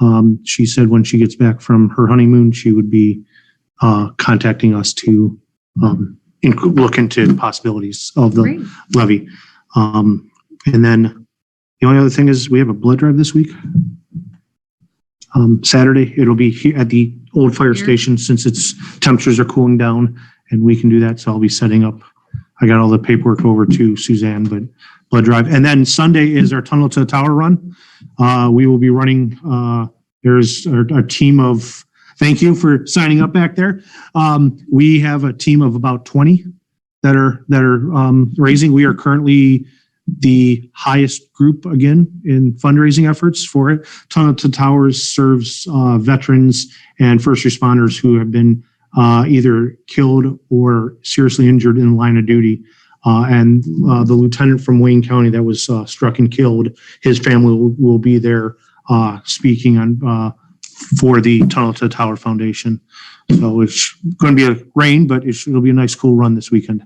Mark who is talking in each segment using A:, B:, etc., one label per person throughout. A: Um, she said when she gets back from her honeymoon, she would be uh, contacting us to um, inc- look into possibilities of the
B: Great.
A: levy. Um, and then the only other thing is we have a blood drive this week. Um, Saturday, it'll be here at the old fire
B: Here.
A: station since its temperatures are cooling down and we can do that. So I'll be setting up. I got all the paperwork over to Suzanne, but blood drive. And then Sunday is our tunnel to the tower run. Uh, we will be running, uh, there's our, our team of, thank you for signing up back there. Um, we have a team of about 20 that are that are um, raising. We are currently the highest group again in fundraising efforts for it. Tunnel to Towers serves uh, veterans and first responders who have been uh, either killed or seriously injured in the line of duty. Uh, and uh, the lieutenant from Wayne County that was uh, struck and killed, his family will, will be there uh, speaking on uh, for the Tunnel to Tower Foundation. So it's going to be a rain, but it should- it'll be a nice cool run this weekend.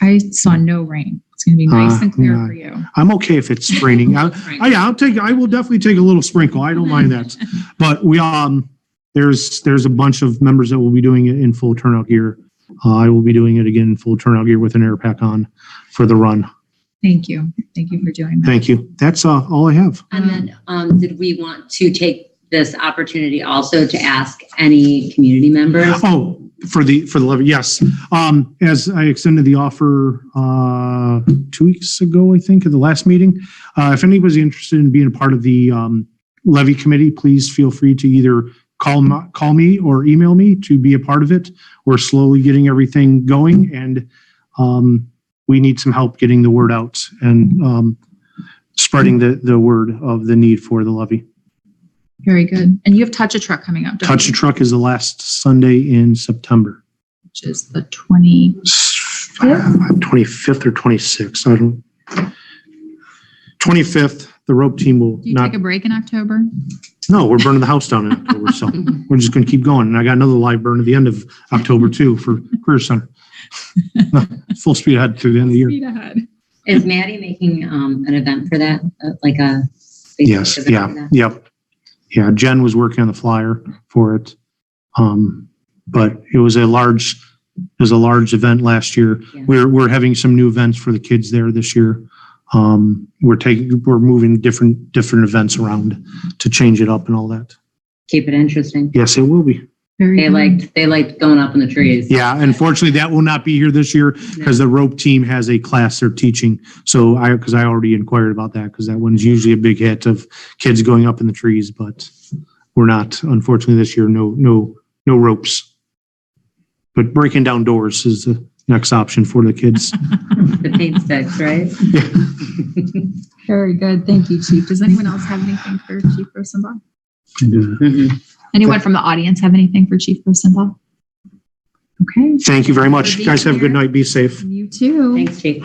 B: I saw no rain. It's going to be nice
A: Ah,
B: and clear
A: yeah.
B: for you.
A: I'm okay if it's raining. I, I, yeah, I'll take, I will definitely take a little sprinkle. I don't mind
B: Mm-hmm.
A: that. But we, um, there's, there's a bunch of members that will be doing it in full turnout gear. Uh, I will be doing it again in full turnout gear with an air pack on for the run.
B: Thank you. Thank you for doing that.
A: Thank you. That's, uh, all I have.
C: And then, um, did we want to take this opportunity also to ask any community members?
A: Oh, for the, for the levy, yes. Um, as I extended the offer, uh, two weeks ago, I think, at the last meeting. Uh, if anybody's interested in being a part of the, um, levy committee, please feel free to either call, m- call me or email me to be a part of it. We're slowly getting everything going and, um, we need some help getting the word out and, um, spreading the, the word of the need for the levy.
B: Very good. And you have Touch a Truck coming up, don't
A: Touch a
B: you?
A: Truck is the last Sunday in September.
B: Which is the 20.
A: 25th or 26th, I don't. 25th, the rope team will
B: Do you
A: not,
B: take a break in October?
A: no, we're burning the house down in October, so we're just gonna keep going. And I got another live burn at the end of October too for Career Center. Full speed ahead through the end of the year.
B: Speed ahead.
C: Is Maddie making, um, an event for that, Uh, like a? Facebook
A: Yes,
C: event for
A: yeah,
C: that?
A: yep. Yeah, Jen was working on the flyer for it. Um, but it was a large, it was a large event last year.
C: Yeah.
A: We're, we're having some new events for the kids there this year. Um, we're taking, we're moving different, different events around to change it up and all that.
C: Keep it interesting.
A: Yes, it will be.
B: Very
C: They
B: good.
C: liked, they liked going up in the trees.
A: Yeah, unfortunately, that will not be here this year because the rope team has a class they're teaching. So I, because I already inquired about that, because that one's usually a big hit of kids going up in the trees, but we're not, unfortunately, this year, no, no, no ropes. But breaking down doors is the next option for the kids.
C: The paint sticks, right?
B: Very good. Thank you, Chief. Does anyone else have anything for Chief Rosenbaum?
A: And, uh,
C: Mhm.
B: Anyone from the audience have anything for Chief Rosenbaum? Okay.
A: Thank you very much. Guys, have a good night. Be safe.
B: You too.
C: Thanks, Jake.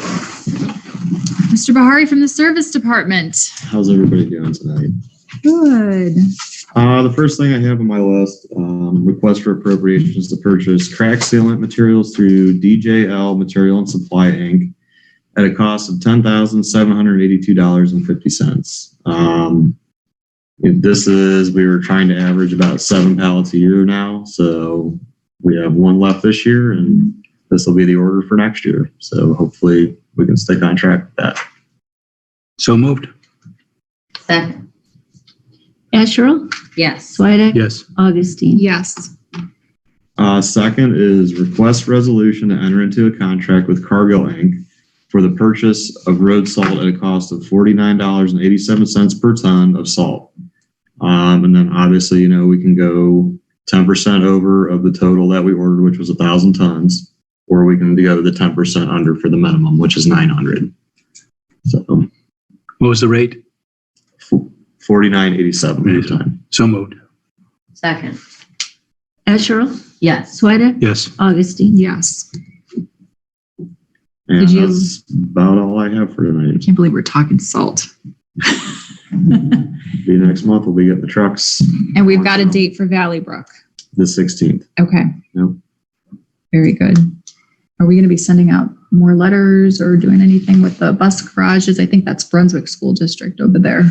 B: Mr. Bahari from the Service Department.
D: How's everybody doing tonight?
B: Good.
D: Uh, the first thing I have on my list, um, request for appropriations to purchase crack sealant materials through DJL Material and Supply Inc. at a cost of ten thousand seven hundred eighty-two dollars and fifty cents. Um, if this is, we were trying to average about seven pallets a year now, so we have one left this year, and this will be the order for next year. So hopefully, we can stick on track with that.
E: So moved.
C: Seth,
F: Asherle,
C: yes.
F: Swedek,
E: Yes.
F: Augustine.
B: Yes.
D: Uh, second is request resolution to enter into a contract with Cargill Inc. for the purchase of road salt at a cost of forty-nine dollars and eighty-seven cents per ton of salt. Um, and then obviously, you know, we can go ten percent over of the total that we ordered, which was a thousand tons, or we can go the ten percent under for the minimum, which is nine hundred. So
E: What was the rate?
D: forty-nine eighty-seven per ton.
E: So moved.
C: Second,
F: Asherle,
C: yes.
F: Swedek,
E: Yes.
F: Augustine.
B: Yes.
D: And
F: Did you-
D: that's about all I have for tonight.
B: Can't believe we're talking salt.
D: Be next month, we'll be getting the trucks
B: And we've got a date for Valley Brook.
D: the sixteenth.
B: Okay.
D: Yep.
B: Very good. Are we going to be sending out more letters or doing anything with the bus garages? I think that's Brunswick School District over there.